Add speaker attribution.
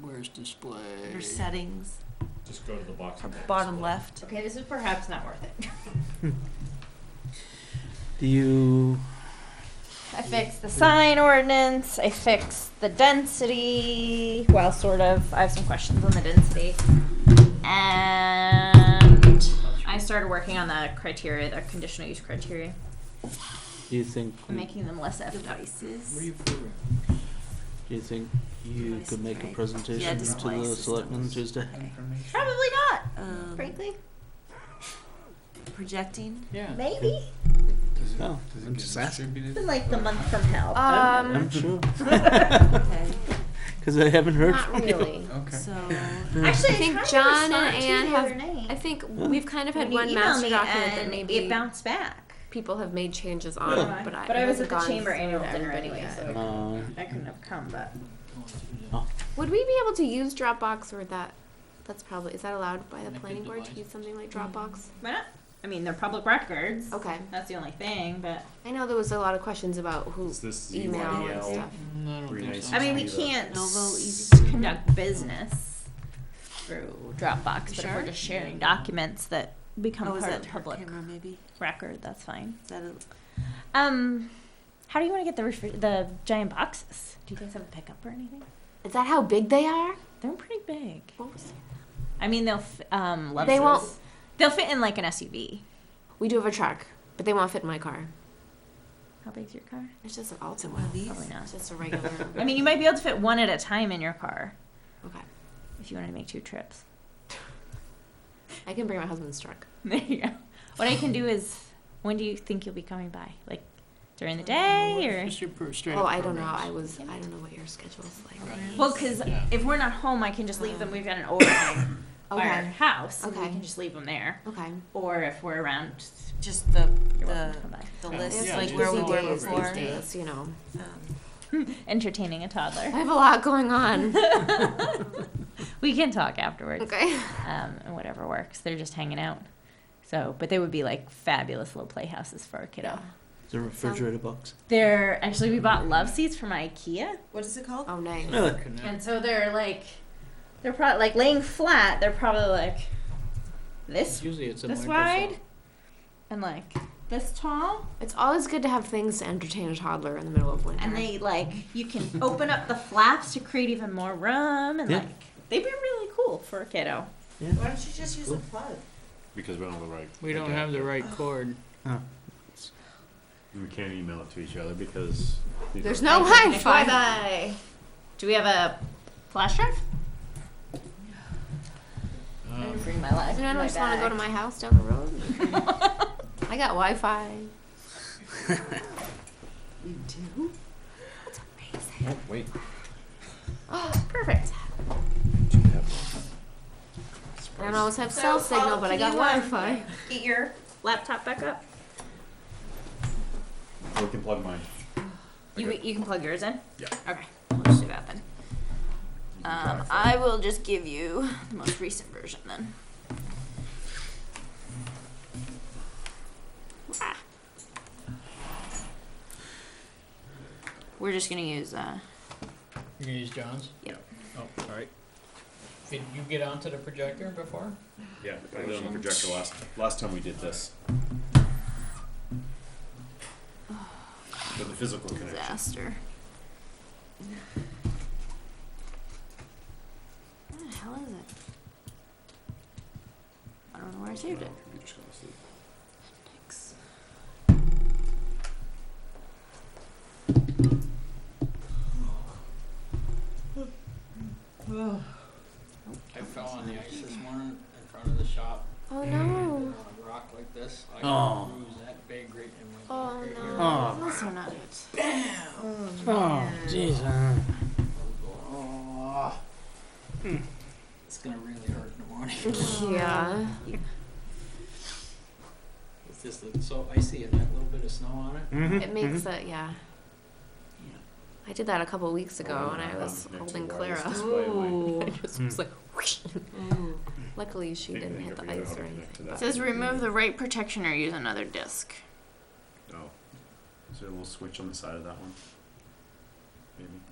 Speaker 1: size display.
Speaker 2: Under settings,
Speaker 3: Just go to the box.
Speaker 2: or
Speaker 3: and
Speaker 2: bottom
Speaker 3: display.
Speaker 2: left.
Speaker 4: Okay, this is perhaps not worth it.
Speaker 5: Do you?
Speaker 4: I fixed the sign ordinance. I fixed the density. Well, sort of. I have some questions on the density. And I started working on the criteria, the conditional use criteria,
Speaker 5: Do you think?
Speaker 4: and making them less efficacious.
Speaker 1: What are
Speaker 2: Devices.
Speaker 1: you figuring?
Speaker 5: Do you think you
Speaker 2: Device
Speaker 5: could make a
Speaker 2: type.
Speaker 5: presentation to
Speaker 2: display
Speaker 5: the
Speaker 2: systems.
Speaker 5: selectmen Tuesday?
Speaker 2: Okay.
Speaker 4: Probably not,
Speaker 2: Um,
Speaker 4: frankly.
Speaker 2: Projecting.
Speaker 1: Yeah.
Speaker 4: Maybe.
Speaker 1: Does it,
Speaker 5: Oh,
Speaker 1: does
Speaker 5: I'm
Speaker 1: it get
Speaker 5: just asking.
Speaker 1: distributed?
Speaker 4: Been like the month from hell.
Speaker 5: I'm
Speaker 4: Um,
Speaker 5: sure,
Speaker 2: Okay.
Speaker 5: because I haven't heard
Speaker 6: Not
Speaker 5: from you.
Speaker 6: really.
Speaker 1: Okay.
Speaker 2: So
Speaker 4: actually,
Speaker 6: I think
Speaker 4: kind of
Speaker 6: John
Speaker 4: responded
Speaker 6: and
Speaker 4: to
Speaker 6: Anne
Speaker 4: you the
Speaker 6: have-
Speaker 4: other night.
Speaker 6: I think we've kind of had
Speaker 4: You
Speaker 6: one
Speaker 4: emailed
Speaker 6: master
Speaker 4: me
Speaker 6: document that
Speaker 4: and
Speaker 6: maybe
Speaker 4: it bounced back.
Speaker 6: people have made changes on,
Speaker 4: Yeah.
Speaker 6: but I,
Speaker 4: But
Speaker 6: it
Speaker 4: I was at
Speaker 6: hasn't
Speaker 4: the
Speaker 6: gone
Speaker 4: chamber
Speaker 6: through
Speaker 4: annual
Speaker 6: to
Speaker 4: dinner anyway,
Speaker 6: everybody yet.
Speaker 4: so-
Speaker 5: Uh,
Speaker 4: I couldn't have come, but
Speaker 6: Would we be able to use Dropbox or that? That's probably is that allowed by the
Speaker 1: Connected
Speaker 6: planning board to
Speaker 1: device.
Speaker 6: use something like Dropbox?
Speaker 4: why not? I mean, they're public records.
Speaker 6: Okay,
Speaker 4: That's the only thing, but
Speaker 6: I know there was a lot of questions about who
Speaker 3: Is this
Speaker 6: email and
Speaker 3: email?
Speaker 6: stuff.
Speaker 1: Mm, I don't
Speaker 3: Pretty
Speaker 1: think
Speaker 3: nice.
Speaker 1: so.
Speaker 4: I mean, we
Speaker 3: Either.
Speaker 4: can't
Speaker 2: Novo,
Speaker 4: s-
Speaker 2: easy.
Speaker 4: conduct business through Dropbox, but if
Speaker 2: Sure.
Speaker 4: we're just sharing documents that become
Speaker 2: oh, is
Speaker 4: part
Speaker 2: that
Speaker 4: of the public
Speaker 2: camera maybe?
Speaker 4: record, that's fine.
Speaker 2: Is that a,
Speaker 4: Um, how do you want to get the refri- the giant boxes? Do you guys have a pickup or anything?
Speaker 6: Is that how big they are?
Speaker 4: They're pretty big.
Speaker 6: What was-
Speaker 4: I mean, they'll f- um
Speaker 6: They won't.
Speaker 4: Levis's- They'll fit in like an SUV.
Speaker 6: We do have a truck, but they won't fit in my car.
Speaker 4: How big's your car?
Speaker 6: It's just an Alta, one of these.
Speaker 4: Probably not.
Speaker 6: It's just a regular.
Speaker 4: I mean, you might be able to fit one at a time in your car
Speaker 6: okay,
Speaker 4: if you wanted to make two trips.
Speaker 6: I can bring my husband's truck.
Speaker 4: There you go. What I can do is, when do you think you'll be coming by? Like during the day or?
Speaker 1: What's your per- straight
Speaker 6: Oh,
Speaker 1: up
Speaker 6: I don't know.
Speaker 1: programs?
Speaker 6: I was. I don't know what your schedule is like.
Speaker 4: Well, because
Speaker 1: Yeah.
Speaker 4: if we're not home, I can just leave them. We've got an overnight by our
Speaker 6: Okay.
Speaker 4: house. and We
Speaker 6: Okay.
Speaker 4: can just leave them there.
Speaker 6: Okay.
Speaker 4: Or if we're around,
Speaker 2: just the
Speaker 4: you're welcome
Speaker 2: the
Speaker 4: to come by.
Speaker 2: the
Speaker 1: Yeah.
Speaker 2: list
Speaker 1: Oh, Yeah,
Speaker 2: like
Speaker 1: just
Speaker 2: where we
Speaker 1: all
Speaker 2: were
Speaker 1: over it.
Speaker 2: before?
Speaker 1: Just
Speaker 2: Um,
Speaker 6: Days, you know.
Speaker 4: Entertaining a
Speaker 6: I
Speaker 4: toddler.
Speaker 6: have a lot going on.
Speaker 4: We can talk afterwards.
Speaker 6: okay.
Speaker 4: Um, and whatever works. They're just hanging out. So, but they would be like fabulous little playhouses for a kiddo.
Speaker 5: The refrigerator box.
Speaker 4: They're actually we bought love seats from IKEA,
Speaker 2: what is it called?
Speaker 6: Oh, nice.
Speaker 5: Really?
Speaker 1: Connect.
Speaker 4: and so they're like, they're probably like laying flat. They're probably like this
Speaker 5: Usually it's a
Speaker 4: this
Speaker 1: uh,
Speaker 5: Microsoft.
Speaker 4: wide, and like this tall.
Speaker 6: It's always good to have things to entertain a toddler in the middle of winter.
Speaker 4: and they like you can open up the flaps to create even more room and
Speaker 5: Yeah.
Speaker 4: like they'd be really cool for a kiddo
Speaker 2: Why don't you just use a plug?
Speaker 3: Because we don't have the right.
Speaker 1: We don't have the right cord.
Speaker 3: We can't email it to each other because. these
Speaker 6: There's
Speaker 3: are-
Speaker 6: no
Speaker 4: Wi-Fi.
Speaker 6: Wi-Fi. Bye.
Speaker 4: do we have a flash drive i
Speaker 3: Um,
Speaker 4: didn't bring my life
Speaker 6: Does anyone just want to go to my house down the road? I got Wi-Fi.
Speaker 2: You do?
Speaker 6: That's amazing.
Speaker 3: oh, wait.
Speaker 4: oh, perfect
Speaker 3: Do you have-
Speaker 6: I don't always have cell
Speaker 4: So,
Speaker 6: signal,
Speaker 4: Paul,
Speaker 6: but I
Speaker 4: can
Speaker 6: got
Speaker 4: you, um,
Speaker 6: Wi-Fi.
Speaker 4: get your laptop back up
Speaker 3: We can plug mine.
Speaker 4: you,
Speaker 3: Okay.
Speaker 4: you can plug yours in
Speaker 3: Yeah.
Speaker 4: okay let's do that then um, i will just give you the most recent version then Ah. we're just gonna use uh,
Speaker 1: You're gonna use John's?
Speaker 4: Yep.
Speaker 1: Oh, all right. Did you get onto the projector before?
Speaker 3: Yeah, I did on the projector last, last time we did this. With the physical connection.
Speaker 4: disaster. Where the hell is it? I don't know where I saved it.
Speaker 3: Computer's gonna sleep.
Speaker 4: Thanks.
Speaker 1: I fell on the ice this morning in front of the shop.
Speaker 6: Oh
Speaker 1: On
Speaker 6: no.
Speaker 1: a rock like this, I
Speaker 5: Oh.
Speaker 1: got a bruise that big right in my.
Speaker 6: Oh
Speaker 1: right
Speaker 6: no.
Speaker 1: here.
Speaker 5: Oh.
Speaker 6: Those are not good.
Speaker 5: Oh, jeez. uh,
Speaker 1: Oh. It's gonna really hurt in the morning.
Speaker 6: Yeah.
Speaker 1: It's just that- so icy and that little bit of snow on it.
Speaker 5: mhm,
Speaker 6: It makes it. Yeah.
Speaker 1: Yeah.
Speaker 6: I did that a couple weeks ago,
Speaker 3: Oh,
Speaker 6: and I
Speaker 3: I'm
Speaker 6: was
Speaker 3: connected
Speaker 6: holding
Speaker 3: to wireless
Speaker 6: Clara.
Speaker 3: display in my-
Speaker 6: I
Speaker 5: mm-hmm.
Speaker 6: just
Speaker 5: Mm.
Speaker 6: was like, whoosh. Luckily, she
Speaker 3: Think
Speaker 6: didn't
Speaker 3: they
Speaker 6: hit
Speaker 3: never
Speaker 6: the
Speaker 3: figured out
Speaker 6: ice
Speaker 3: how
Speaker 6: or
Speaker 3: to connect to
Speaker 6: anything.
Speaker 3: that.
Speaker 4: It says remove the right protection or use another disc.
Speaker 3: Oh. Is there a little switch on the side of that one? Maybe.